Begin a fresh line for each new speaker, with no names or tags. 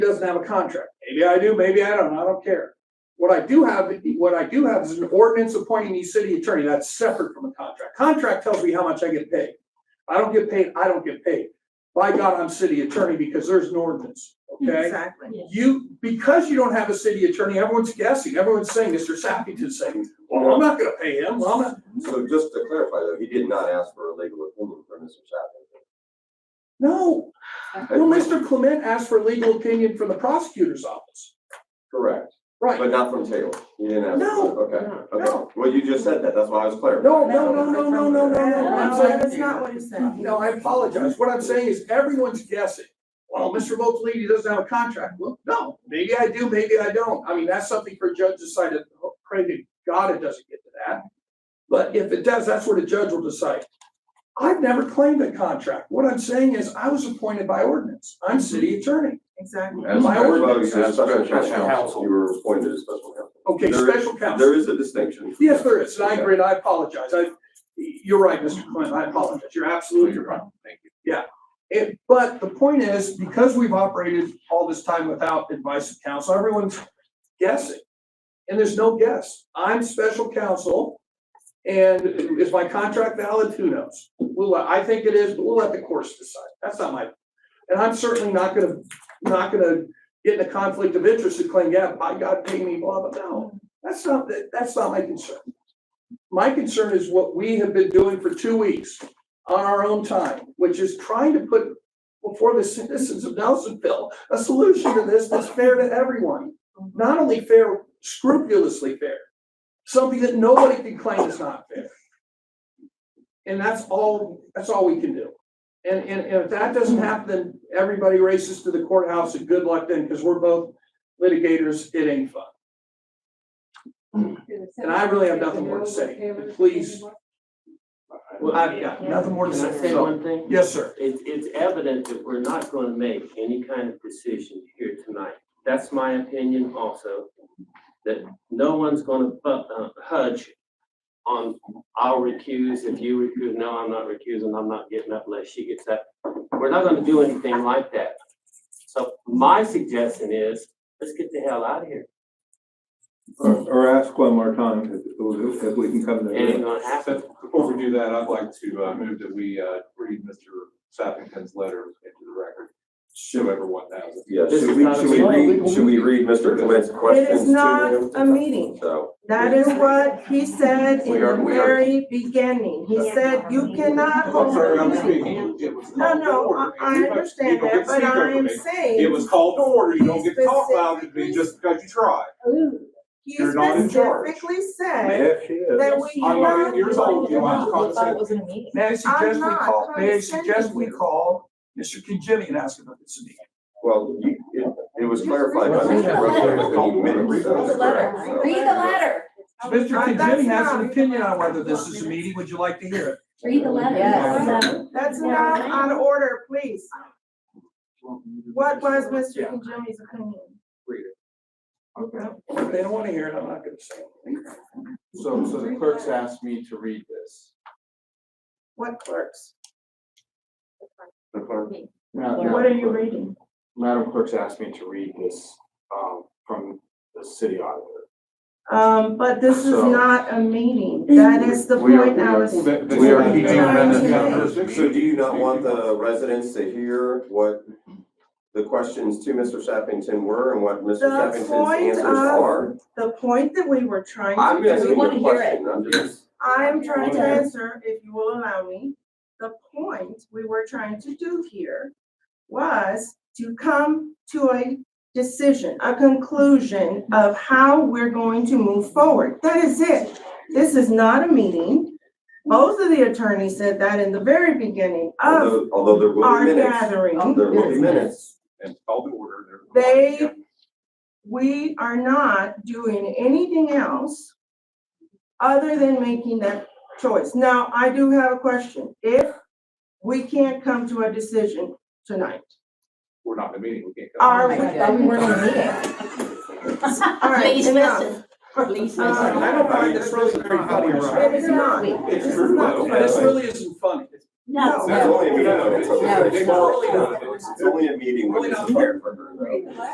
doesn't have a contract. Maybe I do, maybe I don't, I don't care. What I do have, what I do have is an ordinance appointing me city attorney, that's separate from a contract. Contract tells me how much I get paid. I don't get paid, I don't get paid. By God, I'm city attorney because there's an ordinance, okay?
Exactly.
You, because you don't have a city attorney, everyone's guessing, everyone's saying, Mr. Sappington's saying, well, I'm not gonna pay him, well, I'm not.
So just to clarify though, he did not ask for a legal opinion from Mr. Chapman.
No, well, Mr. Clement asked for legal opinion from the prosecutor's office,
Correct,
right?
but not from Taylor. He didn't ask.
No,
Okay, okay.
no.
Well, you just said that. That's why I was clarifying.
No, no, no, no, no, no, no, no. I'm
No,
saying,
that's not what it said.
no, I apologize. What I'm saying is everyone's guessing. Well, Mr. Lady doesn't have a contract. Well, no, maybe I do, maybe I don't. I mean, that's something for a judge to decide. Pray to God it doesn't get to that. But if it does, that's what a judge will decide. I've never claimed a contract. What I'm saying is I was appointed by ordinance. I'm city attorney.
Exactly.
As, as
My
well
ordinance
as your
is
special
special
counsel,
counsel.
you were appointed as special counsel.
Okay,
There is-
special counsel.
There is a distinction.
Yes, there is, and I agree, and I apologize, I, you're right, Mr. Clinton, I apologize, you're absolutely right. Thank you. Yeah, it, but the point is, because we've operated all this time without advice of counsel, everyone's guessing. And there's no guess, I'm special counsel, and is my contract valid, who knows? We'll, let- I think it is, but we'll let the courts decide, that's not my, and I'm certainly not gonna, not gonna get in a conflict of interest and claim, yeah, by God, pay me, blah, blah, blah. That's not, that- that's not my concern. My concern is what we have been doing for two weeks on our own time, which is trying to put before the citizens of Nelsonville, a solution to this that's fair to everyone. Not only fair, scrupulously fair, something that nobody can claim is not fair. And that's all, that's all we can do. And, and, and if that doesn't happen, then everybody races to the courthouse and good luck then, because we're both litigators, it ain't fun.
And I really have nothing more to say, please.
Well,
I've got nothing more to
Can I
say.
say
So-
one thing?
Yes, sir.
It's, it's evident that we're not gonna make any kind of decision here tonight. That's my opinion also, that no one's gonna fu- uh, hudge on, I'll recuse, if you recuse, no, I'm not recusing, I'm not getting up unless she gets up. We're not gonna do anything like that. So my suggestion is, let's get the hell out of here.
Or, or ask one more time if, if we can come
It
to.
ain't gonna happen.
So before we do that, I'd like to uh, move that we uh, read Mr. Sappington's letter into the record, whoever one has it.
Yeah,
This
should
is
we,
not a
should we read, should we read Mr. Clement's questions
It is
to
not
him?
a meeting.
So,
That is what he said in
We are-
the
we are-
very beginning. He said, you cannot
I'm
hold.
sorry, I'm
No,
speaking. It was called to
no,
order.
I, I
Everybody-
understand
people
that,
can
but
speak over
I am
me.
saying.
It was called to order. You don't get to talk loud at me just because you try.
He
You're not in charge.
specifically said
Yes, she is.
that we
I'm
not.
eleven years old. You know, I'm
thought it
constant.
was in a meeting.
May I suggest we
not
call, may I
condescending.
suggest we call Mr. Kijimi and ask him if it's a meeting?
well, you, it, it was
Just
clarified by
read
Mr.
the
Rutherford
letter.
that he admitted so.
Read the
letter.
So-
Read the letter,
Mr.
I- Oh, that's
Kijimi has
not-
an opinion on whether this is a meeting, would you like to hear it?
read the letter.
Yes.
That's not out of order, please. What was Mr. Kijimi's opinion?
If they don't wanna hear it, I'm not gonna say anything.
So, so the clerk's asked me to read this.
What clerks?
The clerk.
What are you reading?
Madam Clerk's asked me to read this, um, from the city auditor.
Um, but this is
So-
not a meeting. That is the point I was.
We are keeping
them in the
So do you not want the residents to hear what the questions to Mr. Sappington were and what Mr.
The
Sappington's
point
answers
of-
are?
The point that we were trying
I'm
to
asking
do,
you
wanna
a
hear it.
question, I'm just,
I'm trying to
Okay.
answer, if you will allow me. The point we were trying to do here was to come to a decision, a conclusion of how we're going to move forward. That is it. This is not a meeting. Both of the attorneys said that in the very beginning of
although, although there will
our
be minutes,
gathering.
there will be minutes.
And called to order. There-
They we are not doing anything else other than making that choice. Now, I do have a question. If we can't come to a decision tonight,
We're not in a meeting. We can't.
are
Oh
we?
my God, I thought we were in a meeting.
All right,
Please
now,
listen, please
Uh,
listen.
I don't find this really very funny,
It
right?
is not.
It's
This is
true,
not
though.
fair.
This really isn't funny.
No.
It's only a meeting, it's
No,
only,
it's
it's
not.
only a meeting when it's prepared for her. though.